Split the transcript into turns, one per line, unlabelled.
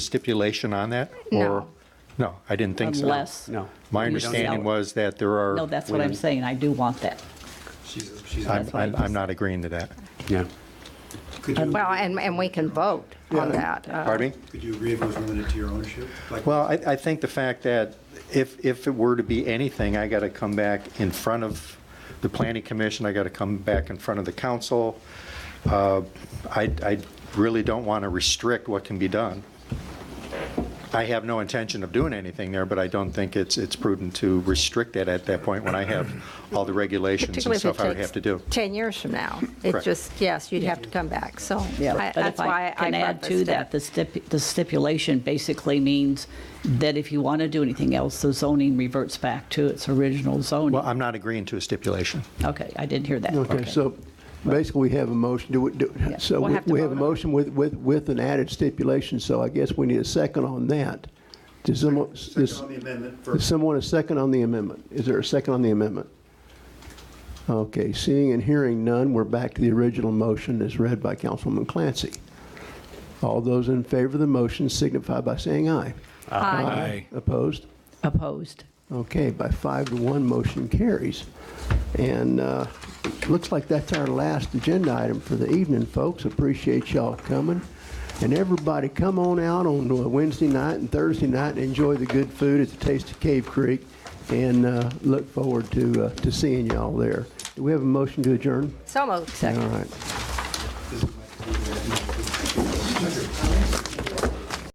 stipulation on that?
No.
or No, I didn't think so.
Unless-
No.
My
You don't
understanding
know.
was that there are.
No, that's what I'm
women-
saying, I do want that.
She's, she's.
I'm,
what I
I'm I'm not agreeing to that.
Yeah.
Could you,
Well, and, and we can vote on that. uh,
Pardon me?
could you agree if it was limited to your ownership? Like-
Well, I, I think the fact that if, if it were to be anything, I got to come back in front of the planning commission, I got to come back in front of the council. Uh, I, I really don't want to restrict what can be done. I have no intention of doing anything there, but I don't think it's, it's prudent to restrict it at that point when I have all the regulations
Particularly
and
if it
stuff I would have to do.
takes 10 years from now. It
Correct.
just, yes, you'd have to come back, so I-
But if
that's why I
Can add to
prefaced it.
that, the stip- the stipulation basically means that if you want to do anything else, the zoning reverts back to its original
Well,
zoning.
I'm not agreeing to a stipulation.
Okay, I didn't hear that.
Okay, so basically, we have a motion, do, we- do,
Yeah.
so
We'll
we
have to
we have a
vote on it.
motion with, with, with an added stipulation, so I guess we need a second on that. Does someone,
Second
does,
on the amendment
is
first.
someone a second on the amendment? Is there a second on the amendment? Okay, seeing and hearing none, we're back to the original motion as read by Councilwoman Clancy. All those in favor of the motion signify by saying aye. Aye. Opposed?
Opposed.
Okay, by five to one, motion carries. And uh, looks like that's our last agenda item for the evening, folks. Appreciate y'all coming. And everybody, come on out on uh, Wednesday night and Thursday night and enjoy the good food at the Taste of Cave Creek, and uh, look forward to uh, to seeing y'all there. Do we have a motion to adjourn?
So moved,
All
second.
right.
This is my-